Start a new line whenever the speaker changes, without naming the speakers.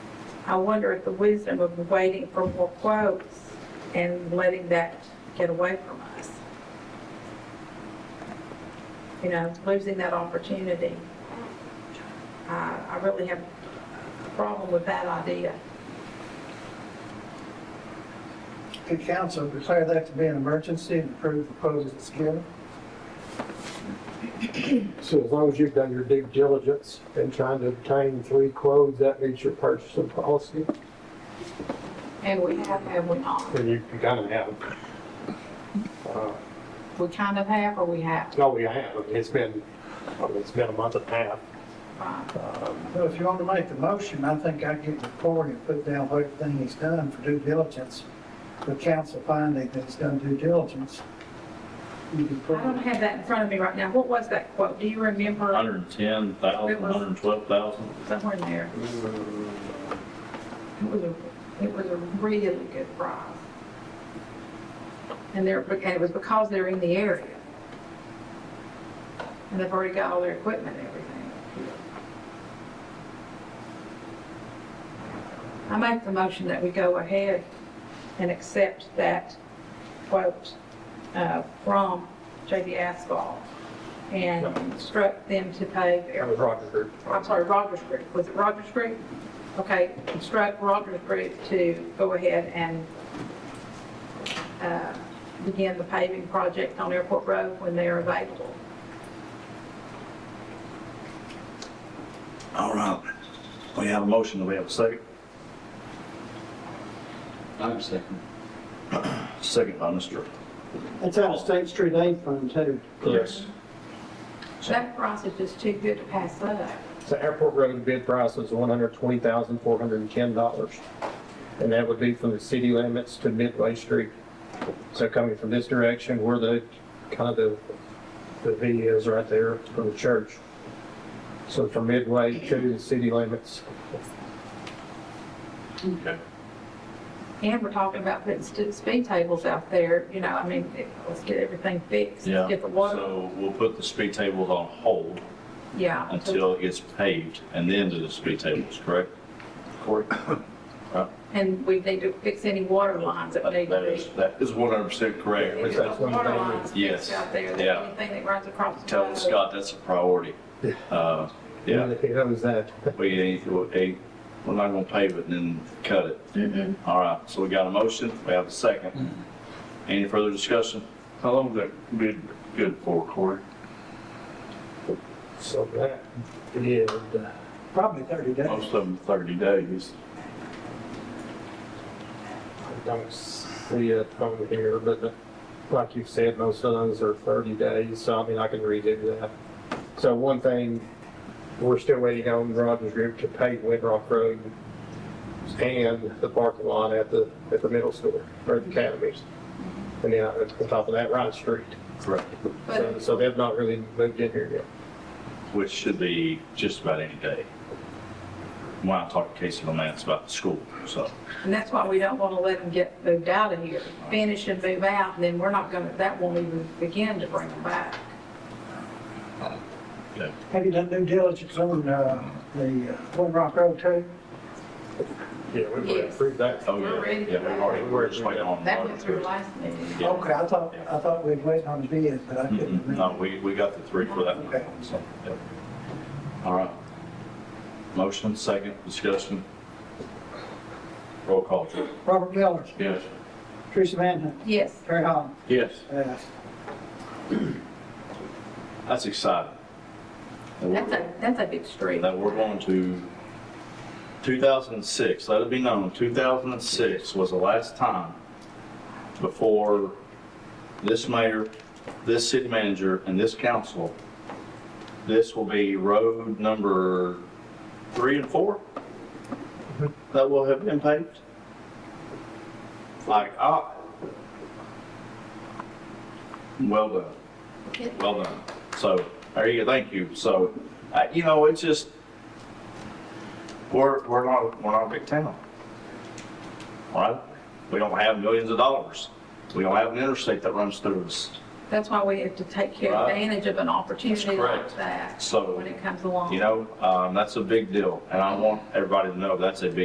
I wonder at the wisdom of waiting for more quotes and letting that get away from us. You know, losing that opportunity. I I really have a problem with that idea.
Could council declare that to be an emergency and approve the proposals as given?
So as long as you've done your due diligence and trying to obtain three quotes, that meets your purchasing policy,
And we have, have we not?
and you can kind of have. uh,
We kind of have or we have?
No, we have, Oh, I mean, it's been, I mean, it's been a month and a half.
Right.
Well, if you want to make the motion, I think I get the report and put down what everything he's done for due diligence, the council finding that he's done due diligence. You can
I
put
don't
it-
have that in front of me right now. What was that quote? Do you remember?
110,000, 112,000.
Somewhere in there. It was a, it was a really good prize. And they're, and it was because they're in the area. And they've already got all their equipment and everything. I make the motion that we go ahead and accept that quote uh, from JD Asphalt and instruct them to pave
That
every
was Roger Group.
I'm sorry, Rogers Group, was it Rogers Group? Okay, instruct Rogers Group to go ahead and uh, begin the paving project on Airport Road when they are available.
All right. We have a motion, do we have a second?
I'm second.
Second by Mr.
That's out of State Street Aid Fund too.
Yes.
That price is just too good to pass up.
So airport road bid price was one hundred twenty thousand, four hundred and ten dollars. And that would be from the city limits to Midway Street. So coming from this direction, where the, kind of the, the V is right there from the church. So from Midway to the city limits,
And we're talking about putting stu- speed tables out there, you know, I mean, it- let's get everything fixed,
Yeah.
get the water,
So we'll put the speed tables on hold
yeah.
until it gets paved and then do the speed tables, correct? Correct.
And we need to fix any water lines that need
That
to be.
is, that is 100% correct.
If
that's
there's
one
water
thing.
lines
Yes,
fixed out there,
yeah.
anything that runs across. the
Tell
road.
Scott that's a priority. Uh,
and
Yeah,
if he owes that,
we ain't, we ain't- we're not gonna pave it and then cut it. All right, so we got a motion, we have a second. Any further discussion? How long was that bid good for, Corey?
so that bid, uh,
Probably 30 days.
Most of them 30 days.
I don't see it on here, but uh, like you said, most of those are 30 days, so I mean, I can redo that. So one thing, we're still waiting on Rogers Group to pave Windrock Road and the parking lot at the, at the middle school, or the academies. And then on top of that, Ryan Street.
Correct.
But
So- So they've not really moved in here yet.
Which should be just about any day. When I talked to Casey on that, it's about the school, so.
And that's why we don't want to let them get moved out of here, finish and move out, and then we're not going to, that won't even begin to bring them back.
Have you done due diligence on uh, the uh, One Rock Road too?
Yeah, we've already
Yes.
approved that.
Oh,
We're
yeah,
ready for
yeah, we've already,
that.
we're just waiting on.
That went through last meeting.
Yeah.
Okay, I thought, I thought we'd wait on the bid, but I couldn't
Mm-mm.
remember.
Mm-hmm. No, we, we got the three for that
Okay.
one, so, yeah. All right. Motion, second, discussion. Roll call, Drew.
Robert Miller,
Yes.
Teresa Mann,
Yes,
Terry Holland,
Yes.
yes.
That's exciting. That we're-
that's a, that's a big street.
That we're going to, 2006, let it be known, 2006 was the last time before this mayor, this city manager, and this council, this will be road number three and four that will have been paved. Like, ah. Well done. Well done. So, there you go, thank you. So, uh, you know, it's just, we're, we're not, we're not a big town. All right? We don't have millions of dollars. We don't have an interstate that runs through us.
That's why we have to take care,
Right.
advantage of an opportunity
correct.
like that
So,
when it comes along.
You know, um, that's a big deal. And I want everybody to know that's a big